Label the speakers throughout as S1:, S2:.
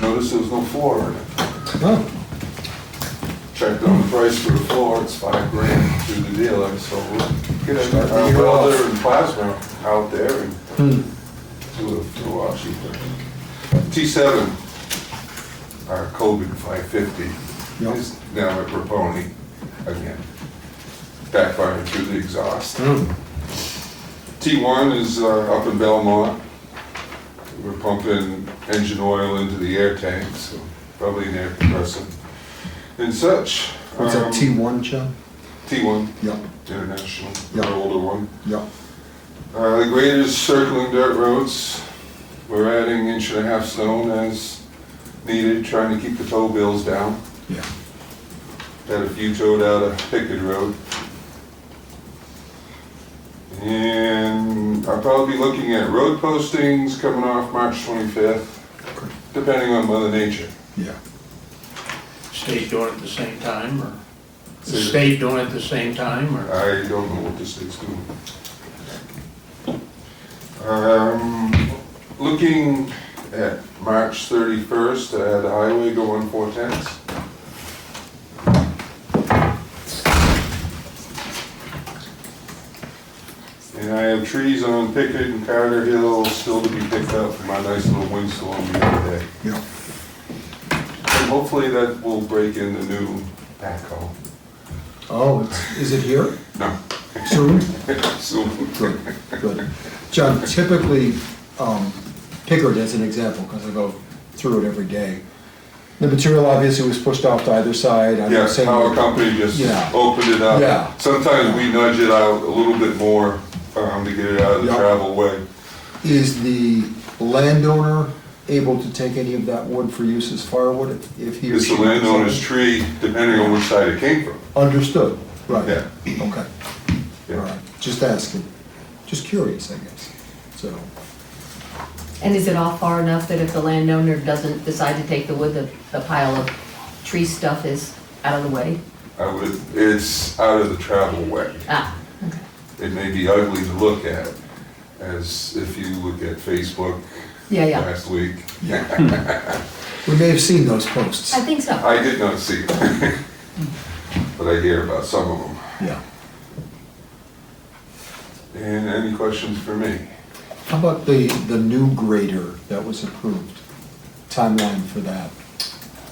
S1: noticed there was no floor in it.
S2: Oh,
S1: Checked on the price for the floor, it's five grand through the dealer, so we'll get
S2: Start the
S1: our
S2: year
S1: welder
S2: off.
S1: and plasma out there and
S2: hmm.
S1: do it for a lot cheaper. T7, our Coben 550,
S2: Yep.
S1: is now at Raponi again, backfiring through the exhaust.
S2: Hmm.
S1: T1 is uh, up in Belmont. We're pumping engine oil into the air tank, so probably an air compressor and such.
S2: What's that,
S1: Um,
S2: T1, Chuck?
S1: T1,
S2: Yep,
S1: International,
S2: Yeah.
S1: the older one.
S2: yep.
S1: Uh, the grader's circling dirt roads. We're adding inch and a half stone as needed, trying to keep the tow bills down.
S2: Yeah.
S1: Had a few towed out of Pickett Road. And I'll probably be looking at road postings coming off March 25th,
S2: Okay.
S1: depending on Mother Nature.
S2: Yeah.
S3: State doing it at the same time, or? The
S1: Say-
S3: state doing it at the same time, or?
S1: I don't know what this thing's doing. Um, looking at March thirty-first, I had the highway going four tenths. And I have trees on Pickett and Carter Hill still to be picked up from my nice little windstorm the other day.
S2: Yeah.
S1: And hopefully that will break in the new backhoe.
S2: Oh, it's, is it here
S1: No,
S2: soon?
S1: soon.
S2: Good, good. John, typically, um, Pickard as an example, because I go through it every day. The material obviously was pushed off to either side. I'm
S1: Yeah,
S2: saying-
S1: our company just
S2: Yeah.
S1: opened it
S2: Yeah.
S1: up. Sometimes we nudge it out a little bit more um, to get it out of the
S2: Yeah.
S1: travel way.
S2: Is the landowner able to take any of that wood for use as firewood if- if he or
S1: It's the
S2: she-
S1: landowner's tree, depending on which side it came from.
S2: Understood, right.
S1: Yeah.
S2: Okay, all
S1: Yeah.
S2: right, just asking, just curious, I guess, so.
S4: And is it all far enough that if the landowner doesn't decide to take the wood, the, the pile of tree stuff is out of the way?
S1: I would, it's out of the travel way.
S4: Ah,
S1: It may be ugly to look at, as if you look at Facebook
S4: yeah, yeah,
S1: last week.
S2: We may have seen those posts.
S4: I think so.
S1: I did not see it, but I hear about some of them.
S2: Yeah.
S1: And any questions for me?
S2: How about the, the new grader that was approved? Timeline for that?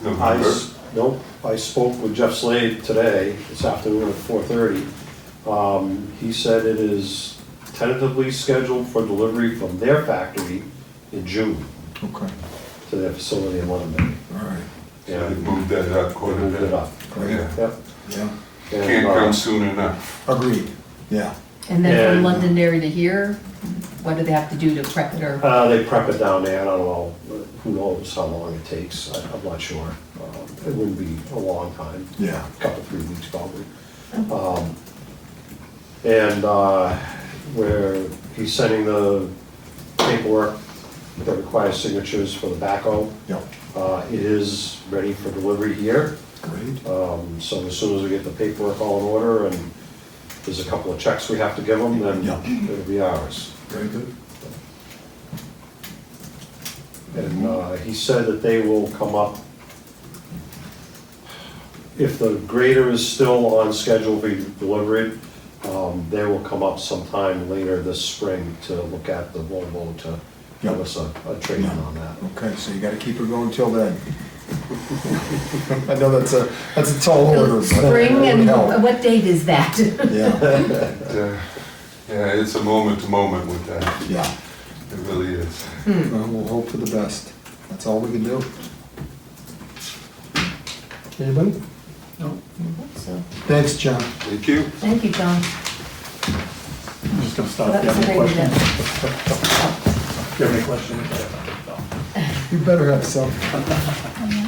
S5: I,
S1: November?
S5: s- nope, I spoke with Jeff Slade today, this afternoon at four thirty. Um, he said it is tentatively scheduled for delivery from their factory in June
S2: Okay,
S5: to their facility in Londonderry.
S2: all right,
S1: Yeah,
S5: And
S1: they moved that up
S5: they
S1: quite a
S5: moved it
S1: bit.
S5: up.
S2: great,
S1: Yeah.
S5: Yep.
S2: yeah,
S5: And,
S1: Can't
S5: uh,
S1: come soon enough.
S2: agreed, yeah,
S4: And then from
S5: And-
S4: Londonderry to here, what do they have to do to prep it or?
S5: Uh, they prep it down there, I don't know, who knows how long it takes, I, I'm not sure. Um, It wouldn't be a long time.
S2: yeah,
S5: couple, three weeks probably. Um, And uh, where he's sending the paperwork that requires signatures for the backhoe.
S2: yeah,
S5: Uh, It is ready for delivery here,
S2: great,
S5: Um, so as soon as we get the paperwork all in order and there's a couple of checks we have to give them, then
S2: Yeah.
S5: it'll be ours.
S2: very good.
S5: And uh, he said that they will come up, if the grader is still on schedule to be delivered, um, they will come up sometime later this spring to look at the Volvo to give us a a trade-in on that.
S2: Okay, so you gotta keep her going till then. I know that's a, that's a tall order, but.
S4: Spring and
S2: Hell,
S4: what date is that?
S2: Yeah,
S1: Uh, Yeah, it's a moment to moment with that.
S2: yeah,
S1: It really is.
S2: Well, we'll hope for the best, that's all we can do. Anybody?
S3: No.
S4: So,
S2: Thanks, John.
S1: Thank you.
S4: Thank you, John.
S6: I'm just gonna stop.
S4: That
S6: Do you
S4: was a
S6: have any
S4: great
S6: questions?
S4: event.
S6: Do you have any questions?
S2: You better have some.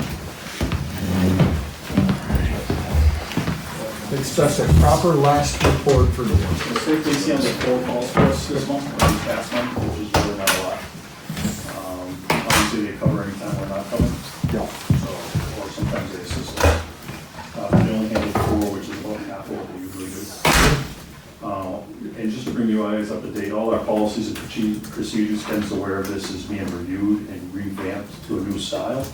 S2: Expect a proper last report for the work.
S6: The safety see on the four calls for us this month, or this past month, which is really not a lot. Um, Obviously, they cover anytime we're not covering,
S2: Yeah,
S6: so, or sometimes they assist us. Uh, They only handle four, which is about half of what we usually do. Uh, And just to bring you guys up to date, all our policies and proce- procedures, Ken's aware of this, is being reviewed and revamped to a new style.